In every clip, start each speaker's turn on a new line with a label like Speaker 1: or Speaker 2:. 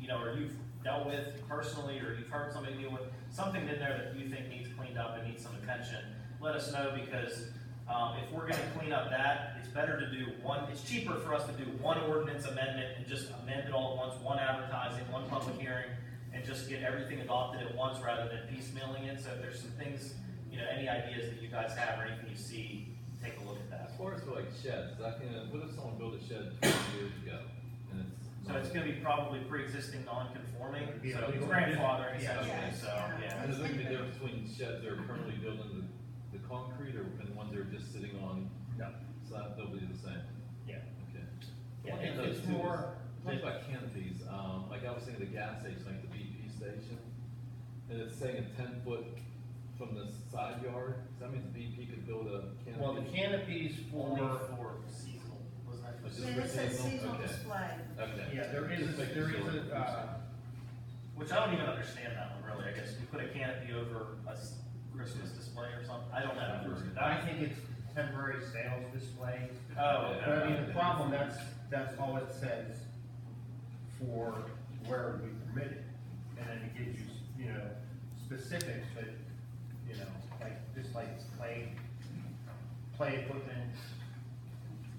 Speaker 1: you know, or you've dealt with personally, or you've heard somebody deal with, something in there that you think needs cleaned up and needs some attention, let us know, because, um, if we're gonna clean up that, it's better to do one, it's cheaper for us to do one ordinance amendment and just amend it all at once, one advertising, one public hearing, and just get everything adopted at once rather than piecemealing it, so if there's some things, you know, any ideas that you guys have or anything you see, take a look at that.
Speaker 2: As far as like sheds, I can, what if someone built a shed twenty years ago? and it's
Speaker 1: So it's gonna be probably pre-existing non-conforming,
Speaker 3: It'd be
Speaker 1: so it's
Speaker 3: illegal.
Speaker 1: grandfathering
Speaker 3: Yeah.
Speaker 1: essentially, so,
Speaker 2: I
Speaker 1: yeah.
Speaker 2: just look at the difference between sheds that are permanently built in the, the concrete or, and the ones that are just sitting on.
Speaker 1: Yeah.
Speaker 2: Slab, they'll be the same.
Speaker 1: Yeah.
Speaker 2: Okay.
Speaker 1: Yeah,
Speaker 2: Okay,
Speaker 1: it's- it's
Speaker 2: so
Speaker 1: more-
Speaker 2: Talk about canopies, um, like I was thinking of the gas station, like the BP station, and it's saying a ten foot from the side yard, so that means BP could build a canopy.
Speaker 3: Well, the canopies
Speaker 1: Only
Speaker 3: for,
Speaker 1: for seasonal, wasn't that?
Speaker 2: Which is
Speaker 4: Yeah, it says
Speaker 2: seasonal?
Speaker 4: seasonal
Speaker 2: Okay.
Speaker 4: display.
Speaker 2: Okay.
Speaker 3: yeah, there is,
Speaker 2: Just making
Speaker 3: there
Speaker 2: sure.
Speaker 3: is a, uh,
Speaker 1: Which I don't even understand that one really, I guess, you put a canopy over a s- Christmas display or something, I don't know.
Speaker 3: uh, I think it's temporary sales display.
Speaker 1: Oh,
Speaker 3: But I mean,
Speaker 1: okay.
Speaker 3: the problem, that's, that's all it says for where we permit it. And then it gives you, you know, specifics, but, you know, like, just like play, play equipment,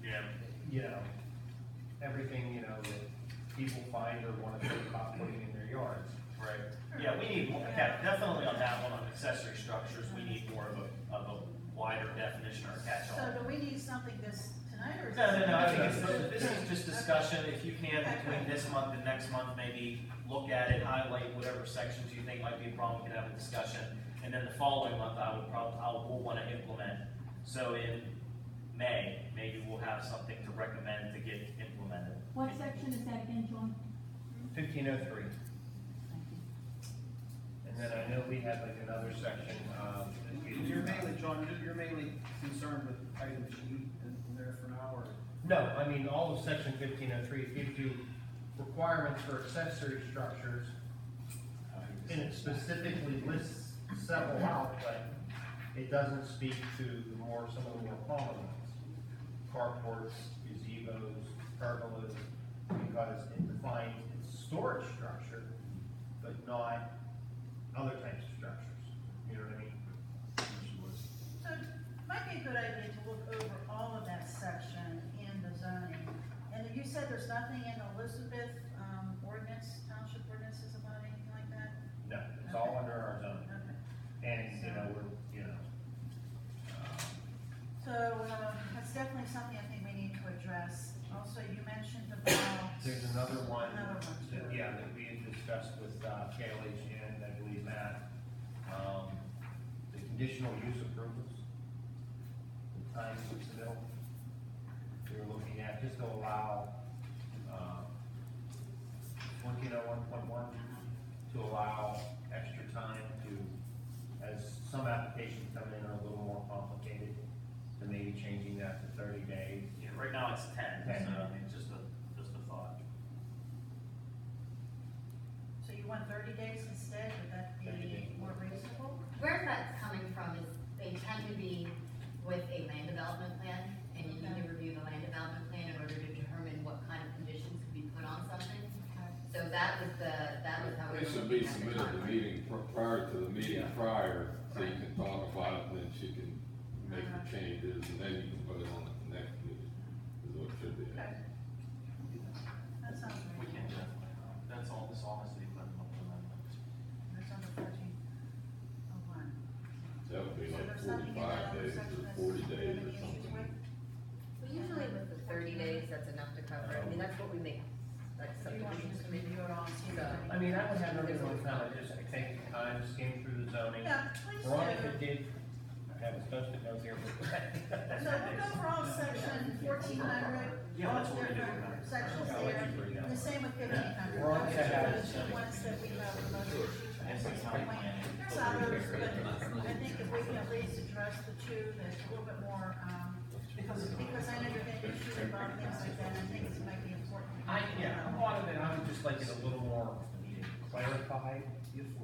Speaker 1: Yeah,
Speaker 3: you know, everything, you know, that people find or wanna think about putting in their yards.
Speaker 1: right, yeah, we need, more- yeah, definitely on that one, on accessory structures, we need more of a, of a wider definition or catch-all.
Speaker 4: So do we need something this tonight or? is
Speaker 1: No,
Speaker 4: this-
Speaker 1: no, no, I think it's, this is just discussion, if you can, between this month and next month, maybe look at it, highlight whatever sections you think might be a problem, we can have a discussion. And then the following month, I would probably, I will wanna implement, so in May, maybe we'll have something to recommend to get implemented.
Speaker 5: What section is that in, John?
Speaker 3: Fifteen oh three. And then I know we had like another section, um. that we-
Speaker 6: You're mainly, John, you're- you're mainly concerned with items you need in in there for now, or?
Speaker 3: No, I mean, all of section fifteen oh three gives you requirements for accessory structures. And it specifically lists several out, but it doesn't speak to the more, some of the more common ones. Carports, gazebo's, pergolas, because it defines its storage structure, but not other types of structures, you know what I mean?
Speaker 4: So it might be a good idea to look over all of that section in the zoning. And you said there's nothing in Elizabeth, um, ordinance, township ordinances about anything like that?
Speaker 3: No, it's all under our zone,
Speaker 4: Okay.
Speaker 3: and, you know, we're, you know, um,
Speaker 4: So, um, that's definitely something I think we need to address. Also, you mentioned about.
Speaker 3: There's another one,
Speaker 4: Another one,
Speaker 3: that-
Speaker 4: too.
Speaker 3: yeah, that we had discussed with uh, Kaylee and I believe Matt, um, the conditional use approvals. The time to submit, we were looking at, just to allow, um, fourteen oh one point one, to allow extra time to, as some applications come in are a little more complicated, to maybe changing that to thirty days,
Speaker 1: Yeah, right now it's ten, so, I mean, just a, just a thought.
Speaker 4: So you want thirty days instead, would that
Speaker 3: 30
Speaker 4: be
Speaker 3: days.
Speaker 4: more reasonable?
Speaker 7: Where that's coming from is they tend to be with a land development plan, and you need to review the land development plan in order to determine what kind of conditions could be put on something. So that was the, that was how we.
Speaker 8: It
Speaker 7: were
Speaker 8: should be
Speaker 7: looking at the
Speaker 8: submitted to the
Speaker 7: timeline.
Speaker 8: meeting, pr- prior to the meeting prior, so you can talk about it, then she can make
Speaker 4: Uh-huh.
Speaker 8: the changes, and then you can put it on at the next meeting, is what it should be.
Speaker 4: Okay. That sounds
Speaker 1: We
Speaker 4: reasonable.
Speaker 1: can definitely, um, that's all, this all has to be put in the amendment.
Speaker 4: That's on the fourteen oh one.
Speaker 8: That would be
Speaker 4: So
Speaker 8: like
Speaker 4: there's nothing in that
Speaker 8: forty-five
Speaker 4: other
Speaker 8: days
Speaker 4: section that's
Speaker 8: or forty
Speaker 4: you have
Speaker 8: days
Speaker 4: any
Speaker 8: or
Speaker 4: issues
Speaker 8: something.
Speaker 4: with?
Speaker 7: Well, Usually with the thirty days, that's enough to cover, it. I mean, that's what we make, like
Speaker 4: Do you want me
Speaker 7: subdivisions
Speaker 4: to
Speaker 7: committee.
Speaker 4: review it all, see if
Speaker 7: So-
Speaker 4: there's
Speaker 3: I
Speaker 4: any-
Speaker 3: mean, I would have no reason to comment, just take the time, skim through the zoning.
Speaker 4: Yeah, please do.
Speaker 3: Veronica did have a special note here. but-
Speaker 4: So we'll go for all of section fourteen hundred.
Speaker 1: Yeah, that's what we do.
Speaker 4: Sections
Speaker 3: I'll let
Speaker 4: there,
Speaker 3: you bring that one.
Speaker 4: and the same with fifteen hundred.
Speaker 3: Veronica has-
Speaker 4: The ones that we have the most issues with.
Speaker 1: Yes, it's not planning.
Speaker 4: There's others, but I think if we can at least address the two that's a little bit more, um, because, because I know you're getting issues about things like that, and I think it might be important.
Speaker 3: I, yeah, a
Speaker 4: Um,
Speaker 3: lot of it, I would just like it a little more clarified,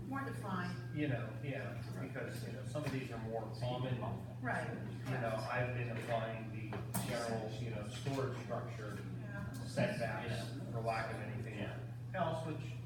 Speaker 4: More defined,
Speaker 3: you know, yeah, because, you know, some of these are more common.
Speaker 4: right.
Speaker 3: You know, I've been applying the general, you know, storage structure
Speaker 4: Yeah.
Speaker 3: setbacks, for lack of anything else, which